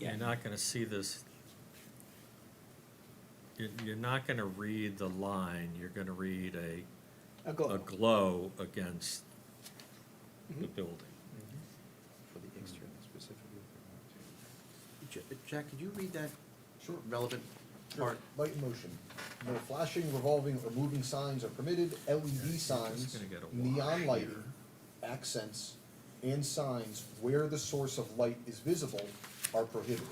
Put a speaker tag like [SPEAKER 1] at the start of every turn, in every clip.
[SPEAKER 1] You're not gonna see this. You're, you're not gonna read the line, you're gonna read a,
[SPEAKER 2] A goal.
[SPEAKER 1] a glow against the building.
[SPEAKER 3] For the external specifically. if
[SPEAKER 4] J- Jack, could you read that relevant
[SPEAKER 5] Sure.
[SPEAKER 4] part?
[SPEAKER 5] Light motion. No flashing, revolving, or moving signs are permitted. LED signs,
[SPEAKER 1] gonna get a wash
[SPEAKER 5] neon lighting,
[SPEAKER 1] here.
[SPEAKER 5] accents, and signs where the source of light is visible are prohibited.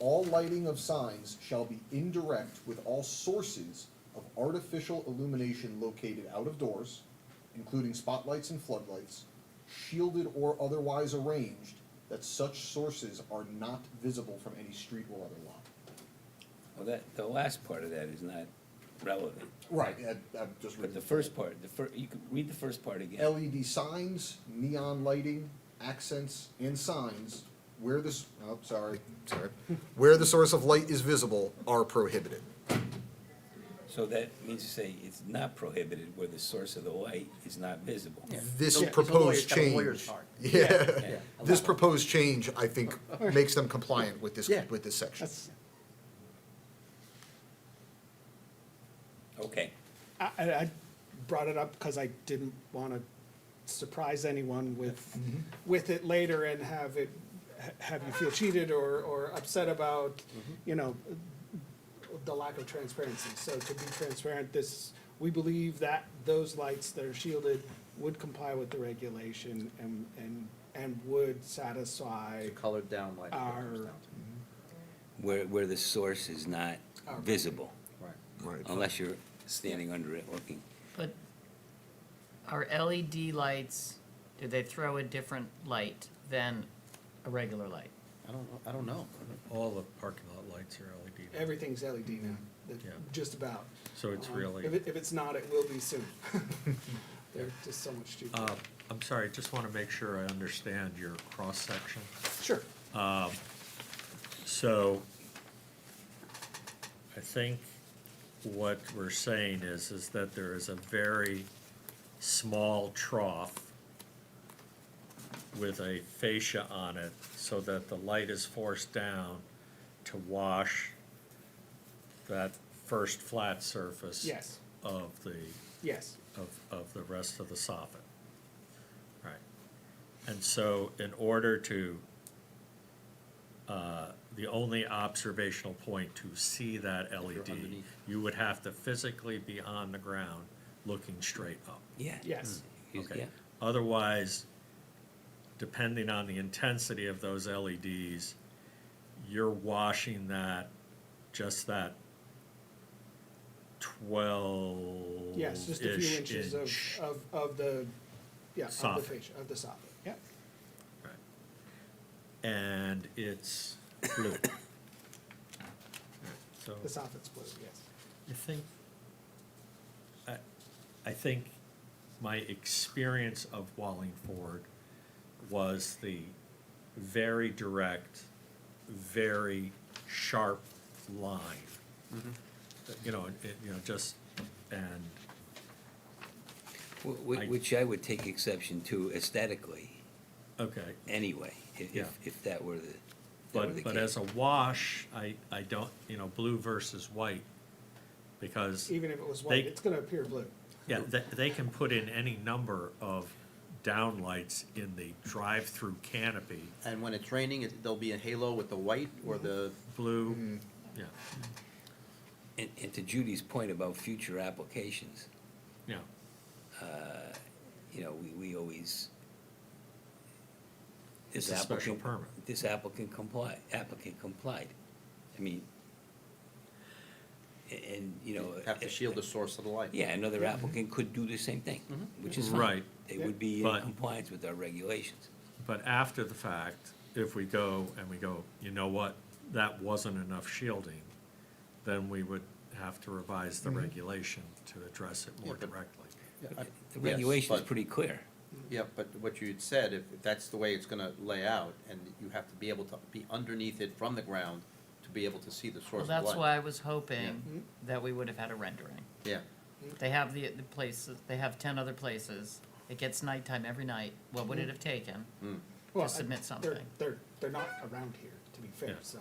[SPEAKER 5] All lighting of signs shall be indirect with all sources of artificial illumination located out of doors, including spotlights and floodlights, shielded or otherwise arranged, that such sources are not visible from any street or other lot.
[SPEAKER 6] Well, that, the last part of that is not relevant,
[SPEAKER 5] Right, I, I'm just
[SPEAKER 6] but
[SPEAKER 5] reading.
[SPEAKER 6] the first part, the fir, you can read the first part again.
[SPEAKER 5] LED signs, neon lighting, accents, and signs where this, oh, sorry, sorry. Where the source of light is visible are prohibited.
[SPEAKER 6] So that means to say it's not prohibited where the source of the light is not visible.
[SPEAKER 5] This
[SPEAKER 4] Yeah.
[SPEAKER 5] proposed
[SPEAKER 4] It's a lawyer- it's
[SPEAKER 5] change.
[SPEAKER 4] a lawyer's
[SPEAKER 5] Yeah,
[SPEAKER 6] Yeah.
[SPEAKER 5] this proposed change, I think, makes them compliant with this,
[SPEAKER 2] Yeah.
[SPEAKER 5] with this section.
[SPEAKER 2] That's,
[SPEAKER 6] Okay,
[SPEAKER 2] I, I I brought it up because I didn't want to surprise anyone with,
[SPEAKER 4] Mm-hmm.
[SPEAKER 2] with it later and have it, ha- have you feel cheated or, or upset about,
[SPEAKER 4] Mm-hmm.
[SPEAKER 2] you know, the lack of transparency. So to be transparent, this, we believe that those lights that are shielded would comply with the regulation and, and, and would satisfy
[SPEAKER 4] It's a colored down light. that
[SPEAKER 2] Our-
[SPEAKER 4] comes down to.
[SPEAKER 6] where, where the source is not
[SPEAKER 2] Our-
[SPEAKER 6] visible,
[SPEAKER 4] Right.
[SPEAKER 5] Right.
[SPEAKER 6] unless you're standing under it looking.
[SPEAKER 7] But are LED lights, do they throw a different light than a regular light?
[SPEAKER 4] I don't, know- I don't know.
[SPEAKER 1] All the parking lot lights are LED. now.
[SPEAKER 2] everything's LED now, that-
[SPEAKER 1] Yeah.
[SPEAKER 2] just about.
[SPEAKER 1] So it's
[SPEAKER 2] Um,
[SPEAKER 1] really-
[SPEAKER 2] If, it- if it's not, it will be soon. They're just so much cheaper.
[SPEAKER 1] Uh, I'm sorry, I just wanna make sure I understand your cross-section.
[SPEAKER 2] Sure.
[SPEAKER 1] So I think what we're saying is, is that there is a very small trough with a fascia on it so that the light is forced down to wash that first flat surface
[SPEAKER 2] Yes.
[SPEAKER 1] of the,
[SPEAKER 2] Yes,
[SPEAKER 1] of, of the rest of the soffit. Right. And so in order to, uh, the only observational point to see that LED,
[SPEAKER 4] underneath.
[SPEAKER 1] you would have to physically be on the ground looking straight up.
[SPEAKER 6] Yeah.
[SPEAKER 2] yes.
[SPEAKER 6] Is-
[SPEAKER 1] Okay.
[SPEAKER 6] yeah.
[SPEAKER 1] Otherwise, depending on the intensity of those LEDs, you're washing that, just that twelve-ish inch.
[SPEAKER 2] Yes, just a few inches of, of, of the, yeah, of the
[SPEAKER 1] Soffit.
[SPEAKER 2] fascia, of the soffit, yeah.
[SPEAKER 1] Right. And it's blue. So
[SPEAKER 2] The soffit's blue, yes.
[SPEAKER 1] I think, I, I think my experience of Wallingford was the very direct, very sharp line. You know, it, you know, just, and,
[SPEAKER 6] Wh- wh- Which I would take exception to aesthetically,
[SPEAKER 1] okay.
[SPEAKER 6] anyway, if,
[SPEAKER 1] Yeah.
[SPEAKER 6] if, if that were the, if that were the
[SPEAKER 1] But, but as
[SPEAKER 6] case.
[SPEAKER 1] a wash, I, I don't, you know, blue versus white, because.
[SPEAKER 2] Even if it was
[SPEAKER 1] They-
[SPEAKER 2] white, it's gonna appear blue.
[SPEAKER 1] Yeah, they, they can put in any number of downlights in the drive-through canopy,
[SPEAKER 4] And when it's raining, it- there'll be a halo with the white or the, Mm-hmm.
[SPEAKER 1] blue, yeah,
[SPEAKER 6] And, and to Judy's point about future applications,
[SPEAKER 1] yeah,
[SPEAKER 6] you know, we, we always.
[SPEAKER 1] It's
[SPEAKER 6] this
[SPEAKER 1] a special
[SPEAKER 6] applicant-
[SPEAKER 1] permit.
[SPEAKER 6] This applicant comply, applicant complied. I mean, a- and, you know.
[SPEAKER 4] have to
[SPEAKER 6] a-
[SPEAKER 4] shield the source of the light.
[SPEAKER 6] Yeah, another applicant could do the same thing,
[SPEAKER 4] Mm-hmm.
[SPEAKER 6] which is fine.
[SPEAKER 1] Right.
[SPEAKER 6] They would be in
[SPEAKER 1] But-
[SPEAKER 6] compliance with our regulations.
[SPEAKER 1] But after the fact, if we go and we go, you know what, that wasn't enough shielding, then we would have to revise the regulation to address it more
[SPEAKER 4] Mm-hmm. Yeah, but-
[SPEAKER 1] directly.
[SPEAKER 4] Yeah, I-
[SPEAKER 6] The
[SPEAKER 4] yes,
[SPEAKER 6] regulation is
[SPEAKER 4] but-
[SPEAKER 6] pretty clear.
[SPEAKER 4] Yeah, but what you'd said, if if that's the way it's gonna lay out, and you have to be able to be underneath it from the ground to be able to see the
[SPEAKER 7] Well,
[SPEAKER 4] source of light.
[SPEAKER 7] that's why I was hoping that we would have had a rendering.
[SPEAKER 4] Yeah,
[SPEAKER 7] They have the, the places, they have ten other places. It gets nighttime every night. What would it have taken?
[SPEAKER 2] Well,
[SPEAKER 7] submit
[SPEAKER 2] I- they're-
[SPEAKER 7] something.
[SPEAKER 2] They're, they're not around here, to be fair,
[SPEAKER 1] Yeah.
[SPEAKER 2] so.